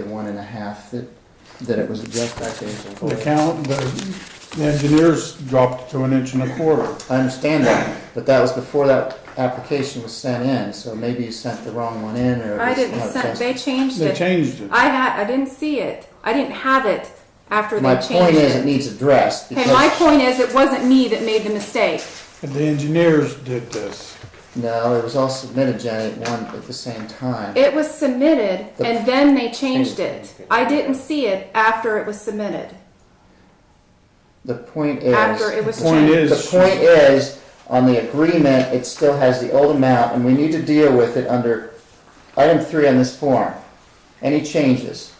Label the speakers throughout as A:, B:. A: one and a half that, that it was just by changing.
B: The count, the, the engineers dropped to an inch and a quarter.
A: I understand that, but that was before that application was sent in, so maybe you sent the wrong one in or. it
C: I
A: was
C: didn't
A: not
C: send,
A: just-
C: they changed
B: They
C: it.
B: changed it.
C: I had, I didn't see it. I didn't have it after they
A: My
C: changed
A: point is, it
C: it.
A: needs addressed because.
C: Okay, my point is, it wasn't me that made the mistake.
B: The engineers did this.
A: No, it was all submitted, Jenny, at one, at the same time.
C: It was submitted
A: The-
C: and then they changed it. I didn't see it after it was submitted.
A: The point is.
C: After it was
B: The point
C: changed.
A: The
B: is,
A: point is, on the agreement, it still has the old amount, and we need to deal with it under item three on this form. Any changes?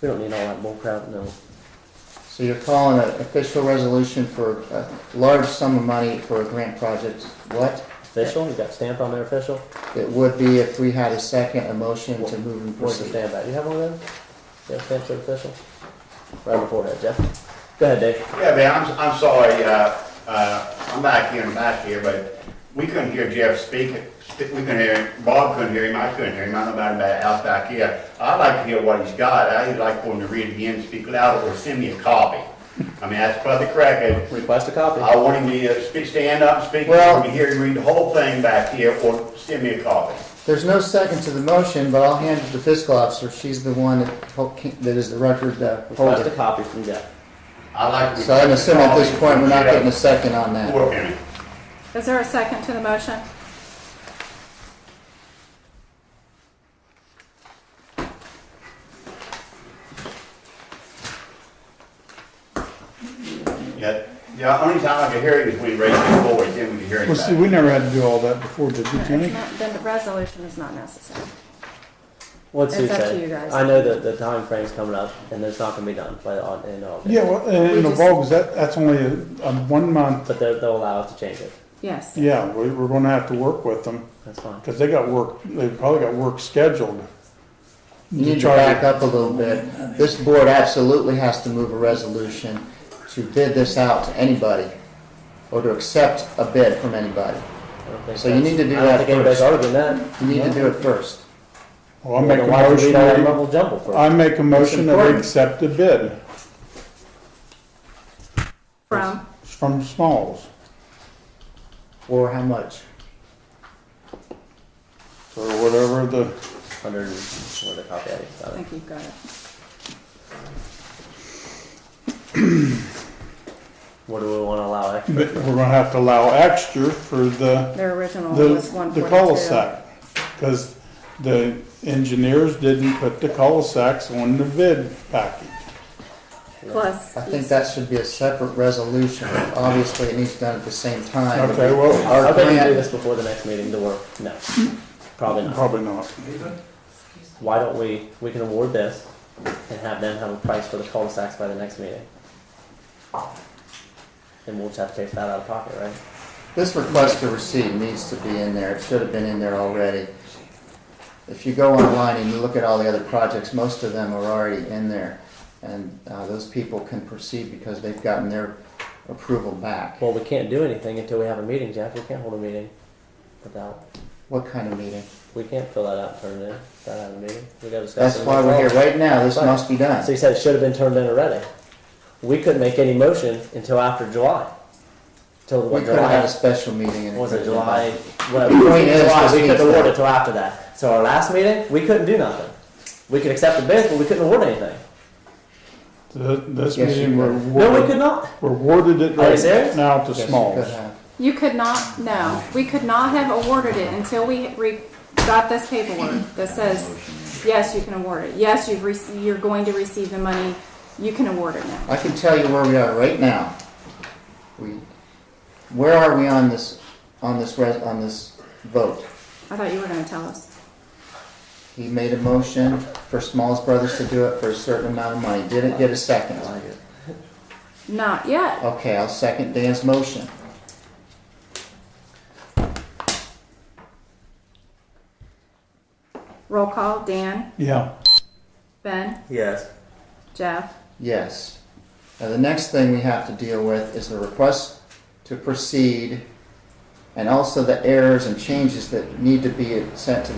D: We don't need all that bull crap, no.
A: So you're calling an official resolution for a large sum of money for a grant project, what?
D: Official, you got stamped on there official?
A: It would be if we had a second, a motion to move and
D: Where's the
A: proceed.
D: stamp at? You have one of them? You have stamps that official? Right on the forehead, Jeff. Go ahead, Dave.
E: Yeah, man, I'm, I'm sorry, uh, uh, I'm back here and back here, but we couldn't hear Jeff speak. Sp- We couldn't hear, him. Bob couldn't hear him, I couldn't hear him, I don't know about that out back here. I'd like to hear what he's got, I'd like for him to read it again, speak louder, or send me a copy. I mean, that's probably correct.
D: Request a copy.
E: I want him to uh, speak, stand up, speak,
A: Well-
E: let me hear him read the whole thing back here, or send me a copy.
A: There's no second to the motion, but I'll hand it to the fiscal officer, she's the one that hol- that is the record uh,
D: Request a
A: holder.
D: copy from Jeff.
E: I'd like to.
A: So I'm assuming at this point, we're not getting a
E: this.
A: second on that.
C: Is there a second to the motion?
E: Yeah, yeah, only time I could hear it is when he raised his voice, then we could hear it
B: well, see,
E: back.
B: we never had to do all that before, did we,
C: It's
B: Jenny?
C: not- Then the resolution is not necessary.
D: What's Sue
C: It's up to
D: say?
C: you guys.
D: I know that the time frame's coming up and it's not gonna be done by, on, in August.
B: Yeah, well, and
C: We
B: the
C: just-
B: Vogue's, that, that's only a, a one month.
D: But they'll, they'll allow us to change it.
C: Yes.
B: Yeah, we, we're gonna have to work with them,
D: That's fine.
B: cause they got work, they probably got work scheduled.
A: You need to back up a little bit. This board absolutely has to move a resolution to bid this out to anybody or to accept a bid from anybody.
D: I don't think
A: So you
D: that's-
A: need to do
D: I
A: that
D: don't think anybody's
A: first.
D: arguing that.
A: You need to do it first.
B: Well, I make a
D: Why don't we
B: motion,
D: read all that
B: that
D: mumble jumble first?
B: we- I make a motion that we
A: important.
B: accept the bid
C: From,
B: from Smalls
A: For how much?
B: or whatever the,
D: Hundred, what did I copy
C: I
D: at? Got it.
C: think you've got it.
D: What do we wanna allow extra?
B: but we're gonna have to allow extra for the
C: Their original
B: The,
C: was one
B: the
C: forty-two.
B: cul-de-sac, because the engineers didn't put the cul-de-sacs on the bid package.
C: Plus.
A: I think that should be a separate resolution. Obviously, it needs done at the same time.
B: Okay, well,
A: Our
D: I bet you do
A: grant,
D: this before the next meeting, the work, no, probably not.
B: probably not.
D: Why don't we, we can award this and have them have a price for the cul-de-sacs by the next meeting? And we'll just have to pay for that out of pocket, right?
A: this request to receive needs to be in there. It should have been in there already. If you go online and you look at all the other projects, most of them are already in there. And uh, those people can proceed because they've gotten their approval back.
D: Well, we can't do anything until we have a meeting, Jeff, we can't hold a meeting without,
A: What kind of meeting?
D: we can't fill that out and turn it in, without having a meeting, we gotta discuss.
A: That's
D: it.
A: why we're here right now, this
D: Right.
A: must be
D: So
A: done.
D: you said it should have been turned in already. We couldn't make any motion until after July. Till
A: We
D: what,
A: could have had a
D: July,
A: special meeting and.
D: was it July,
A: The
D: whatever,
A: point is,
D: July,
A: this
D: we
A: needs
D: couldn't award
A: to-
D: it till after that. So our last meeting, we couldn't do nothing. We could accept the bids, but we couldn't award anything.
B: Th- This
A: Yes,
B: meeting,
A: you
B: we're
A: could.
D: No, we could
B: awarded,
D: not.
B: we're awarded it
D: Are you serious?
B: right now to
A: Yes, you
B: Smalls.
A: could have.
C: You could not, no, we could not have awarded it until we re, got this paperwork that says, yes, you can award it. Yes, you've rec, you're going to receive the money, you can award it now.
A: I can tell you where we are right now. We, where are we on this, on this, res- on this vote?
C: I thought you were gonna tell us.
A: He made a motion for Smalls Brothers to do it for a certain amount of money, didn't get a second.
C: Not yet.
A: Okay, I'll second Dan's motion.
C: Roll call, Dan,
B: Yeah,
C: Ben,
D: Yes.
C: Jeff.
A: Yes. Now, the next thing we have to deal with is the request to proceed and also the errors and changes that need to be sent to